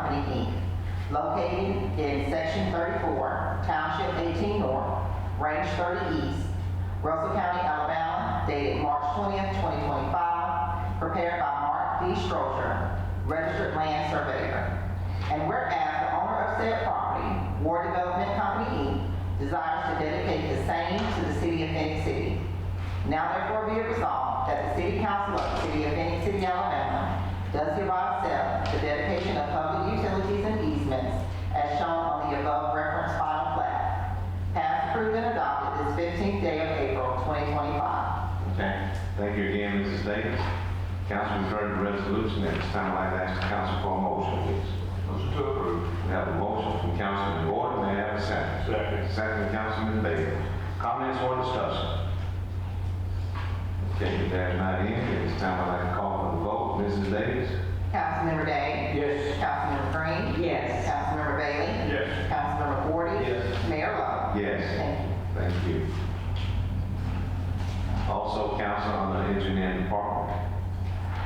property, Inc., located in Section 34, Township 18 North, Range 30 East, Russell County, Alabama, dated March 20th, 2025, prepared by Mark D. Stroger, registered land surveyor. And whereas the owner of said property, War Development Company, Inc., desires to dedicate the same to the city of Phoenix City, now therefore be it resolved that the City Council of the City of Phoenix City, Alabama does hereby accept the dedication of public utilities and easements as shown on the above referenced final plat. Passed, approved, and adopted this 15th day of April, 2025. Okay, thank you again, Mrs. Davis. Council, you've heard the resolution, at this time, I'd like to ask the council for a motion, please. Motion to approve. We have a motion from Councilman Gordon, may I have a second? Second. Second, Councilman Bailey. Comments or discussion? Okay, if there's not any, at this time, I'd like to call for the vote, Mrs. Davis? Councilmember Day? Yes. Councilmember Green? Yes. Councilmember Bailey? Yes. Councilmember Gordon? Yes. Mayor Lo? Yes, Thank you. thank you. Also, council on the engineering department.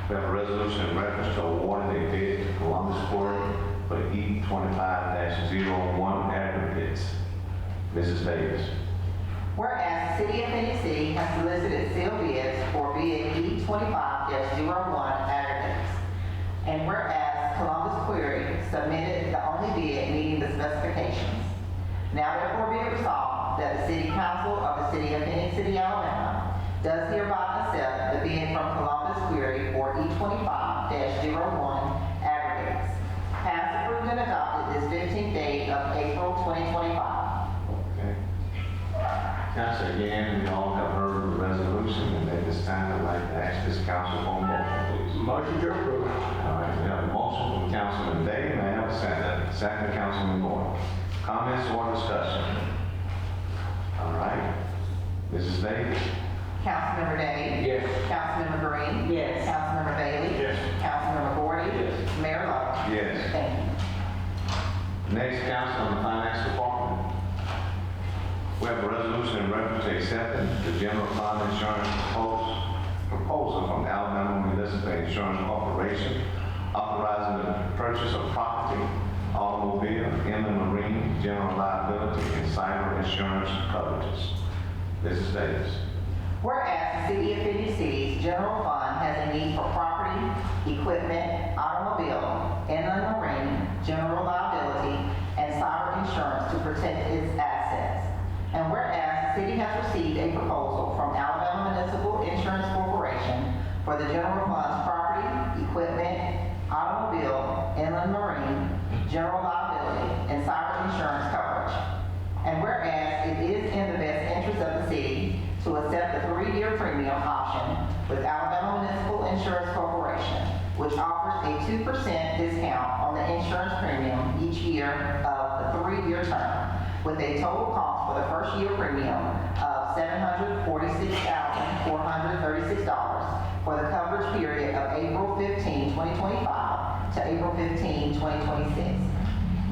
We have a resolution in reference to awarding a bid to Columbus Quarry for E twenty-five dash aggregates. Mrs. Davis. Whereas the City of Phoenix City has solicited sealed bids for bid E twenty-five one aggregates. And whereas Columbus Query submitted the only bid meeting the specifications. Now therefore be it resolved that the City Council of the City of Phoenix City, Alabama does hereby accept the bid from Columbus Query for E twenty-five one aggregates. Passed, approved, and adopted this fifteenth day of April twenty twenty-five. Okay. Council, again, we all have heard the resolution, and at this time, I'd like to ask this council for a motion, please. Motion to approve. All right, we have a motion from Councilman Day, may I have a second? Second, Councilman Moore. Comments or discussion? All right, Mrs. Davis? Councilmember Day? Yes. Councilmember Green? Yes. Councilmember Bailey? Yes. Councilmember Gordon? Yes. Mayor Lo? Yes. Thank you. Next, Council on the Finance Department. We have a resolution in reference to accepting the general fund insurance propos- proposal from Alabama Municipal Insurance Corporation, authorizing the purchase of property, automobile, inland marine, general liability, and cyber insurance coverages. Mrs. Davis. Whereas the City of Phoenix City's general fund has a need for property, equipment, automobile, inland marine, general liability, and cyber insurance to protect its assets. And whereas the city has received a proposal from Alabama Municipal Insurance Corporation for the general fund's property, equipment, automobile, inland marine, general liability, and cyber insurance coverage. And whereas it is in the best interest of the city to accept the three-year premium option with Alabama Municipal Insurance Corporation, which offers a 2% discount on the insurance premium each year of the three-year term, with a total cost for the first year premium of $746,436 for the coverage period of April 15, 2025 uh, to April 15, 2026.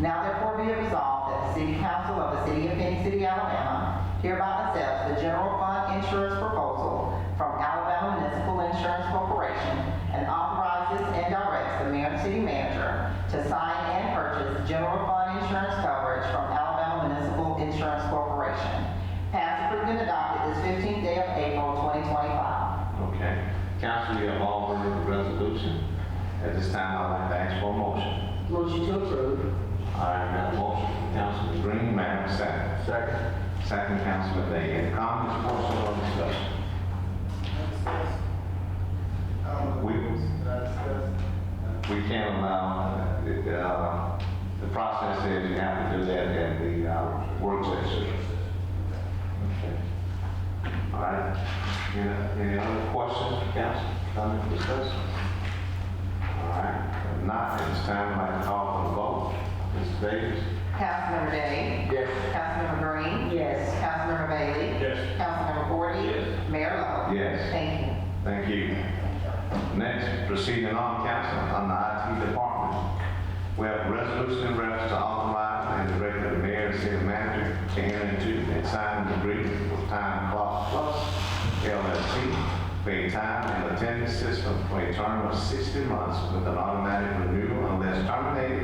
Now therefore be it resolved that the City Council of the City of Phoenix City, Alabama hereby accepts the general fund insurance proposal from Alabama Municipal Insurance Corporation and authorizes and directs the mayor and city manager to sign and purchase general fund insurance coverage from Alabama Municipal Insurance Corporation. Passed, approved, and adopted this 15th day of April, 2025. Okay. Council, we have all heard the resolution. At this time, I'd like to ask for a motion. Motion to approve. All right, we have a motion from Councilman Green, may I have a second? Second. Second, Councilman Day. Any comments, questions, or discussion? We, we can't allow, the, uh, the process is you have to do that at the uh, work session. Okay. All right. Any, any other questions, council, comments, discussion? All right, if not, it's time I'd like to call for the vote. Mr. Davis? Councilmember Day? Yes. Councilmember Green? Yes. Councilmember Bailey? Yes. Councilmember Gordy? Yes. Mayor Lo? Yes. Thank you. Thank you. Next, proceeding on council on the IT department. We have a resolution in reference to authorize and direct the mayor and city manager to enter into and sign an agreement with Time Clock Plus LLC for a time and attendance system for a term of 60 months with an automatic renewal unless terminated